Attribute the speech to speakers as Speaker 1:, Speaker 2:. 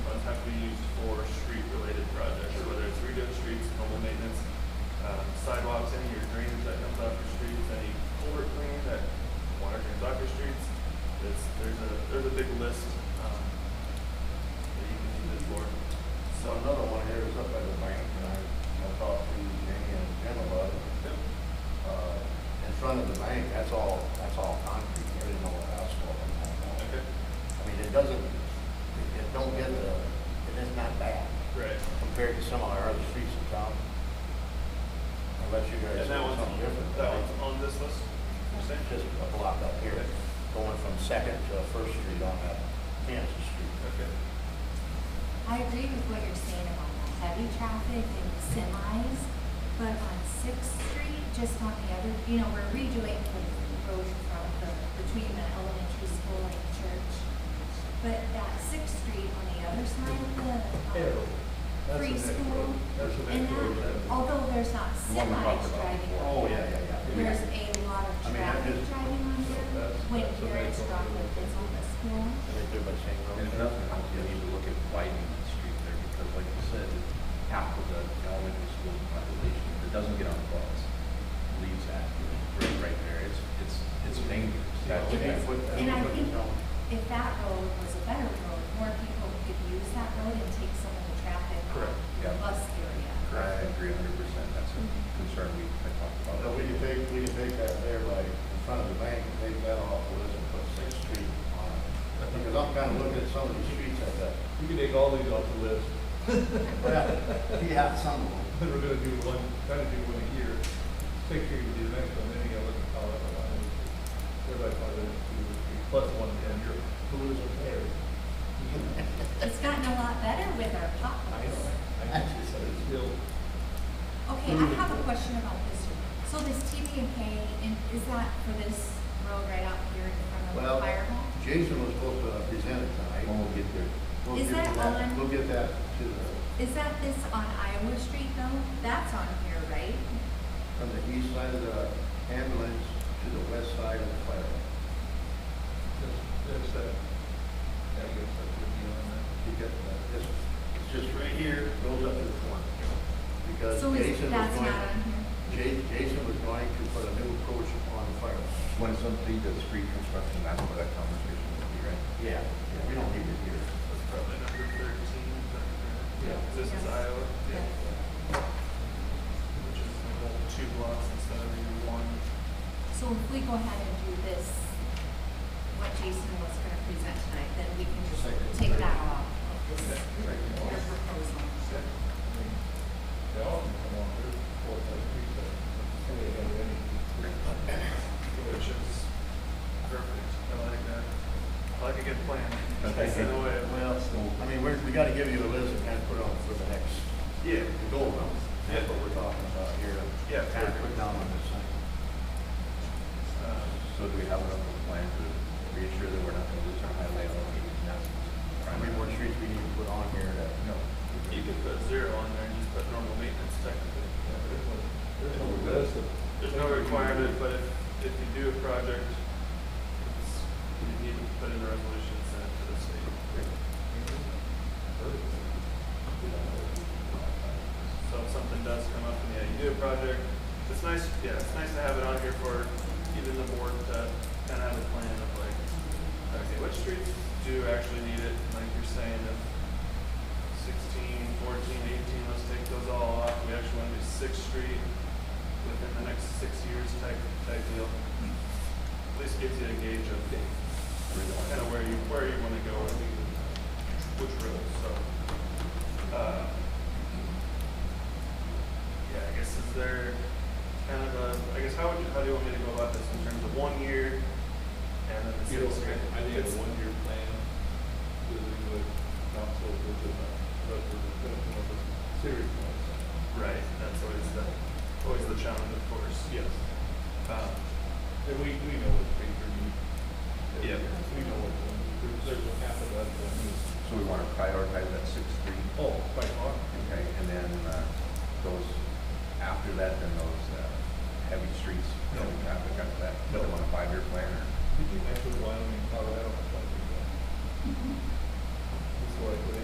Speaker 1: um, um,
Speaker 2: Uh, think that's all, that's all concrete, there is no asphalt in that. no.
Speaker 1: Okay,
Speaker 2: I mean, it doesn't, it it don't get the, it is not bad
Speaker 1: right.
Speaker 2: compared to some of our other streets in town. Unless you guys
Speaker 1: And that
Speaker 2: do something
Speaker 1: one's,
Speaker 2: different.
Speaker 1: that one's on this list, you're saying?
Speaker 2: It's just a block up here, going from Second to First Street on that Kansas Street.
Speaker 1: Okay.
Speaker 3: I agree with what you're saying about the heavy traffic and semis, but on Sixth Street, just on the other, you know, we're redoing the road from the, between the elementary school and church. But that Sixth Street on the other side of the, um, free school, and that, although there's not
Speaker 2: The one we talked
Speaker 3: semis
Speaker 2: about
Speaker 3: driving
Speaker 2: before.
Speaker 3: on
Speaker 2: Oh, yeah,
Speaker 3: there,
Speaker 2: yeah, yeah.
Speaker 3: there's a lot
Speaker 2: I
Speaker 3: of
Speaker 2: mean, that
Speaker 3: traffic
Speaker 2: is-
Speaker 3: driving on there,
Speaker 4: That's-
Speaker 3: when
Speaker 4: that's a
Speaker 3: parents
Speaker 4: big
Speaker 3: drop
Speaker 4: one.
Speaker 3: their kids on the school.
Speaker 2: And they do by saying, well,
Speaker 4: And if nothing else, you need to look at widening the street there, because like you said, half of the elementary school population that doesn't get on the bus leaves that right, right there. It's, it's, it's dangerous.
Speaker 2: That would be foot- that
Speaker 3: And I
Speaker 2: would be
Speaker 3: think
Speaker 2: no-
Speaker 3: if that road was a better road, more people could use that road and take some of the traffic
Speaker 1: Correct,
Speaker 3: off the
Speaker 4: yeah.
Speaker 3: bus area.
Speaker 4: I agree a hundred percent. That's a concern we, I talked about.
Speaker 2: But we can take, we can take that there by, in front of the bank, and take that off the list and put Sixth Street on it. Because I'm kind of looking at some of these streets at that.
Speaker 5: You can take all these off the list,
Speaker 2: Well, you have some of them.
Speaker 5: then we're gonna do one, try to do one a year, six years to do the next one, then you gotta look at how that one, everybody probably does two, or three, plus one in your, who is a pair.
Speaker 3: It's gotten a lot better with our potholes.
Speaker 5: But it's still,
Speaker 3: Okay, I have a question about this. So this TPMK, and is that for this road right out here in front of
Speaker 2: Well,
Speaker 3: the fire hall?
Speaker 2: Jason was supposed to present it tonight.
Speaker 4: When we'll get there.
Speaker 2: We'll
Speaker 3: Is
Speaker 2: get
Speaker 3: that
Speaker 2: that-
Speaker 3: on-
Speaker 2: We'll get that to the,
Speaker 3: Is that this on Iowa Street though? That's on here, right?
Speaker 2: from the east side of the ambulance to the west side of the fire.
Speaker 5: there's, there's that, yeah, I guess that's your view on that.
Speaker 2: You get that, this, it's just right here, goes up to the corner. Because
Speaker 3: So is,
Speaker 2: Jason was
Speaker 3: that's
Speaker 2: going,
Speaker 3: not on here?
Speaker 2: Ja- Jason was going to put a new approach on the fire.
Speaker 4: When it's up to the street construction, that's where that conversation will be, right?
Speaker 2: Yeah, yeah, we don't need it here.
Speaker 1: that's probably number thirteen,
Speaker 2: Yeah.
Speaker 1: is this is
Speaker 3: Yes.
Speaker 1: Iowa?
Speaker 3: Yes.
Speaker 1: Which is the whole two blocks instead of the one.
Speaker 3: So if we go ahead and do this, what Jason was gonna present tonight, then we can just
Speaker 2: Second.
Speaker 3: take that off of this,
Speaker 1: Okay.
Speaker 3: your proposal.
Speaker 5: They all can come on, there's four, five, three, seven, somebody had any.
Speaker 1: Which is perfect, I like that. I like a good plan. That's the way. it went.
Speaker 2: Well, I mean, we're, we gotta give you a list and kind of put on for the next,
Speaker 1: Yeah,
Speaker 2: the goal round. That's what we're talking about here.
Speaker 1: Yeah.
Speaker 2: Kind of put down on this thing.
Speaker 1: uh,
Speaker 4: So do we have enough of a plan to reassure that we're not gonna lose our highway on the
Speaker 2: How many more streets we need to put on here that
Speaker 4: No.
Speaker 1: you could put zero on there and just put normal maintenance technically.
Speaker 5: Yeah, there's no, there's no list of.
Speaker 1: There's no requirement, but if, if you do a project, it's, you need to put in a resolution sent to the state. So if something does come up and yeah, you do a project, it's nice, yeah, it's nice to have it on here for even the board to kind of have a plan of like, okay, which streets do actually need it? Like you're saying, if 16, 14, 18, let's take those all off. We actually want to do Sixth Street within the next six years type, type deal. At least gives you a gauge of kind of where you, where you want to go and which road, so. uh, Yeah, I guess is there kind of a, I guess how would you, how do you want me to go about this in terms of one year and then the
Speaker 5: You know,
Speaker 1: six year?
Speaker 5: I think a
Speaker 1: It's-
Speaker 5: one-year plan, would be what council would do, but we're gonna come up with serious ones.
Speaker 1: Right, that's always the, always the challenge, of course.
Speaker 5: Yes.
Speaker 1: Um,
Speaker 5: And we, we know what paper needs.
Speaker 1: Yeah.
Speaker 5: We know what, there's, there's a half of that that needs.
Speaker 4: So we wanna prioritize that sixth street
Speaker 5: Oh, quite hard.
Speaker 4: Okay, and then uh, those, after that, then those uh, heavy streets, no traffic after that, put them on a five-year plan or?
Speaker 5: Did you actually Wyoming, Colorado, something like that? That's why I put in